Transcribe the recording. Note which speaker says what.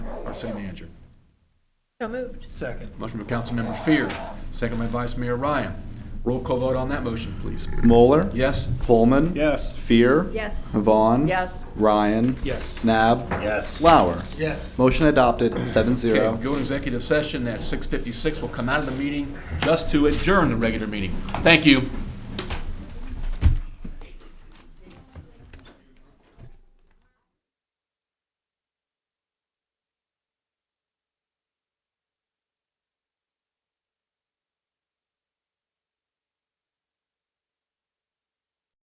Speaker 1: by city manager.
Speaker 2: So moved.
Speaker 3: Second.
Speaker 1: Motion by Councilmember Fear, second by Vice Mayor Ryan. Roll call vote on that motion, please.
Speaker 4: Moeller.
Speaker 1: Yes?
Speaker 4: Pullman.
Speaker 3: Yes.
Speaker 4: Fear.
Speaker 2: Yes.
Speaker 4: Vaughn.
Speaker 2: Yes.
Speaker 4: Ryan.
Speaker 3: Yes.
Speaker 4: Nab.
Speaker 5: Yes.
Speaker 4: Lauer.
Speaker 3: Yes.
Speaker 4: Motion adopted, seven
Speaker 1: Okay,
Speaker 4: zero.
Speaker 1: go to executive session at 6:56. We'll come out of the meeting just to adjourn the regular meeting. Thank you.